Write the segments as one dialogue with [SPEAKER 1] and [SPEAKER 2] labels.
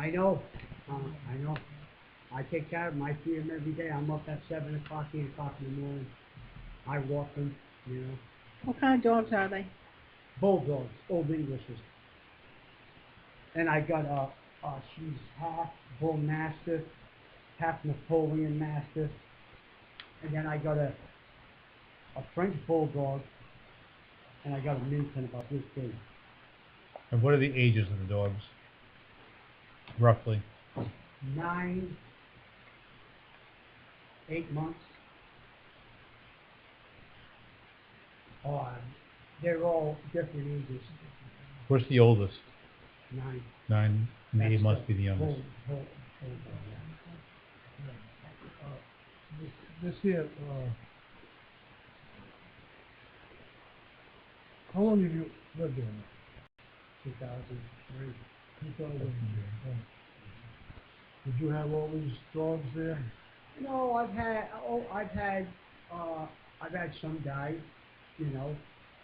[SPEAKER 1] I know, um, I know. I take care of them. I feed them every day. I'm up at seven o'clock, eight o'clock in the morning. I walk them, you know.
[SPEAKER 2] What kind of dogs are they?
[SPEAKER 1] Bulldogs, old Englishes. And I got a, uh, she's half Bull Mastiff, half Napoleon Mastiff. And then I got a, a French Bulldog, and I got a Minton about this big.
[SPEAKER 3] And what are the ages of the dogs? Roughly.
[SPEAKER 1] Nine, eight months. Uh, they're all different ages.
[SPEAKER 3] What's the oldest?
[SPEAKER 1] Nine.
[SPEAKER 3] Nine, and eight
[SPEAKER 1] That's
[SPEAKER 3] must be the youngest.
[SPEAKER 1] bull- bull- bulldog, yeah.
[SPEAKER 4] This, this here, uh, how long have you lived there?
[SPEAKER 1] 2003.
[SPEAKER 4] Two thousand years. Did you have all these dogs there?
[SPEAKER 1] No, I've had oh, I've had uh, I've had some die, you know,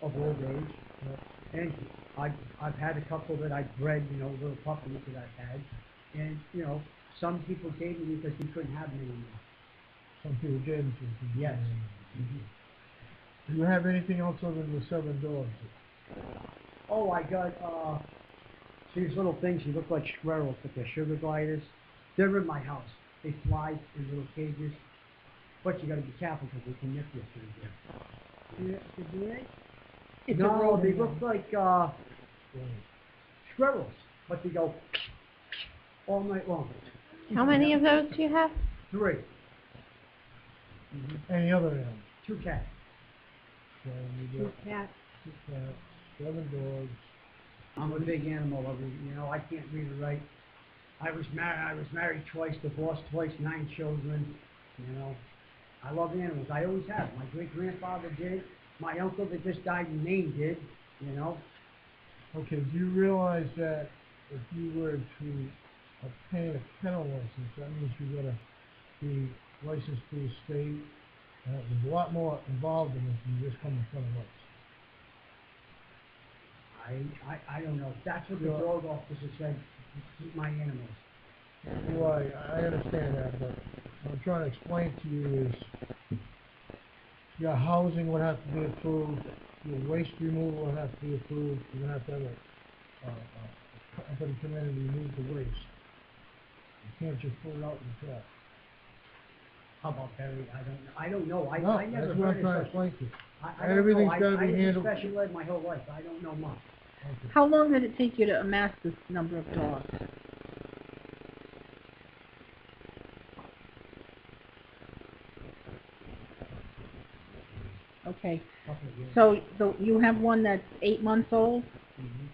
[SPEAKER 1] of old age, and I I've had a couple that I bred, you know, little puppies that I've had, and you know, some people gave me because we couldn't have them anymore.
[SPEAKER 4] Some people gave them to you.
[SPEAKER 1] Yes.
[SPEAKER 4] Do you have anything else other than the seven dogs?
[SPEAKER 1] Oh, I got uh, these little things. You look like squirrels, but they're sugar gliders. They're in my house. They fly in little cages, but you got to be careful because they can nip you through there.
[SPEAKER 2] Do do they?
[SPEAKER 1] It's no, they look like uh, squirrels, but they go all night long.
[SPEAKER 5] How many of those do you have?
[SPEAKER 1] Three,
[SPEAKER 4] Any other animals?
[SPEAKER 1] two cats.
[SPEAKER 4] So you
[SPEAKER 2] Two
[SPEAKER 4] got
[SPEAKER 2] cats.
[SPEAKER 4] two cats, seven dogs.
[SPEAKER 1] I'm a big animal lover. You know, I can't read or write. I was married. I was married twice, divorced twice, nine children. You know, I love animals. I always have. My great grandfather did. My uncle that just died in Maine did. You know,
[SPEAKER 4] Okay, do you realize that if you were to obtain a kennel license, that means you gotta be licensed through the state? Uh, there's a lot more involved in this than just coming in front of us.
[SPEAKER 1] I I, I don't know. That's what the
[SPEAKER 4] Yeah.
[SPEAKER 1] dog officer said. Keep my animals.
[SPEAKER 4] Well, I, I understand that, but what I'm trying to explain to you is your housing would have to be approved, your waste removal would have to be approved, you're gonna have to have a, uh, a company come in and remove the waste. You can't just put it out in the trash.
[SPEAKER 1] How about Barry? I don't. I don't know. I,
[SPEAKER 4] No,
[SPEAKER 1] I never
[SPEAKER 4] that's
[SPEAKER 1] heard
[SPEAKER 4] what
[SPEAKER 1] of
[SPEAKER 4] I'm trying to
[SPEAKER 1] such-
[SPEAKER 4] explain to you.
[SPEAKER 1] I, I
[SPEAKER 4] And
[SPEAKER 1] don't
[SPEAKER 4] everything's
[SPEAKER 1] know. I,
[SPEAKER 4] gotta
[SPEAKER 1] I
[SPEAKER 4] be
[SPEAKER 1] did
[SPEAKER 4] handled-
[SPEAKER 1] special ed my whole life. I don't know much.
[SPEAKER 4] Okay.
[SPEAKER 2] How long did it take you to amass this number of dogs? Okay,
[SPEAKER 1] Couple of years.
[SPEAKER 2] so the, you have one that's eight months old.
[SPEAKER 1] Mhm.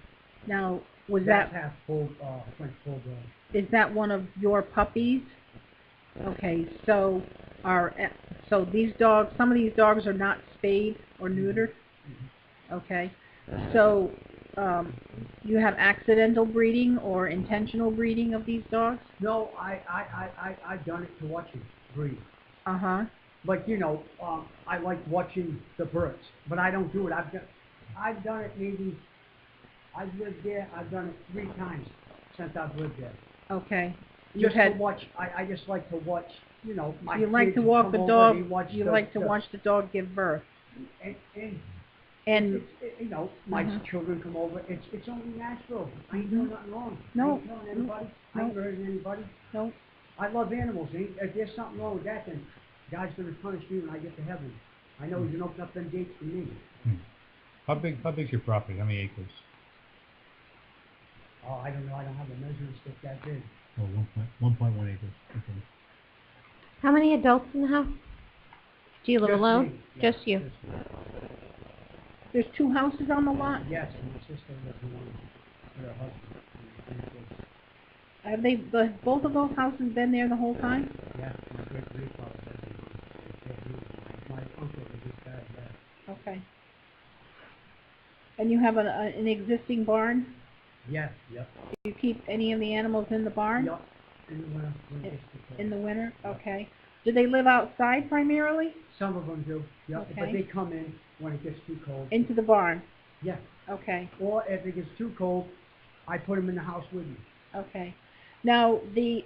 [SPEAKER 2] Now, was
[SPEAKER 1] That's
[SPEAKER 2] that
[SPEAKER 1] half full uh, French bulldog.
[SPEAKER 2] is that one of your puppies? Okay, so are so these dogs? Some of these dogs are not spayed or neutered. Okay, so um, you have accidental breeding or intentional breeding of these dogs?
[SPEAKER 1] No, I I I I I've done it to watch him breed.
[SPEAKER 2] Uh huh.
[SPEAKER 1] Like you know, um, I like watching the birds, but I don't do it. I've done I've done it maybe. I've lived there. I've done it three times since I've lived there.
[SPEAKER 2] Okay. You
[SPEAKER 1] Just to
[SPEAKER 2] had
[SPEAKER 1] watch. I I just like to watch. You know, my
[SPEAKER 2] you like
[SPEAKER 1] kids
[SPEAKER 2] to walk
[SPEAKER 1] come
[SPEAKER 2] the
[SPEAKER 1] over,
[SPEAKER 2] dog.
[SPEAKER 1] they watch
[SPEAKER 2] You
[SPEAKER 1] the-
[SPEAKER 2] like to
[SPEAKER 1] the-
[SPEAKER 2] watch the dog give birth.
[SPEAKER 1] And, and
[SPEAKER 2] And
[SPEAKER 1] it's, it- you know, my
[SPEAKER 2] Mhm.
[SPEAKER 1] children come over. It's it's only natural. I ain't doing nothing wrong. I
[SPEAKER 2] Mm-hmm. No,
[SPEAKER 1] ain't killing
[SPEAKER 2] no,
[SPEAKER 1] anybody. I ain't
[SPEAKER 2] no.
[SPEAKER 1] hurting anybody.
[SPEAKER 2] no,
[SPEAKER 1] I love animals. Ain't, if there's something wrong with that, then God's going to punish me when I get to heaven. I know He's going to open up them gates for me.
[SPEAKER 3] How big, how big's your property? How many acres?
[SPEAKER 1] Oh, I don't know. I don't have a measuring stick that big.
[SPEAKER 3] Oh, one point, one point one acres. Okay.
[SPEAKER 5] How many adults in the house? Do you live
[SPEAKER 1] Just
[SPEAKER 5] alone?
[SPEAKER 1] me. Yeah,
[SPEAKER 5] Just you.
[SPEAKER 1] me.
[SPEAKER 2] there's two houses on the lot.
[SPEAKER 1] Yes, and my sister lives alone with her husband. and her three kids.
[SPEAKER 2] Have they the, both of those houses been there the whole time?
[SPEAKER 1] Yeah, my great grandfather said they were- they kept me. My uncle was just died. Yeah.
[SPEAKER 2] Okay. And you have an, a, an existing barn?
[SPEAKER 1] Yes, yep.
[SPEAKER 2] Do you keep any of the animals in the barn?
[SPEAKER 1] Yep. And when, I- when I
[SPEAKER 2] In-
[SPEAKER 1] get to the-
[SPEAKER 2] In the winter? Okay. Do they live outside primarily?
[SPEAKER 1] Some of them do. Yep. But
[SPEAKER 2] Okay.
[SPEAKER 1] they come in when it gets too cold.
[SPEAKER 2] Into the barn?
[SPEAKER 1] yeah.
[SPEAKER 2] Okay,
[SPEAKER 1] Or if it gets too cold, I put them in the house with me.
[SPEAKER 2] okay. Now, the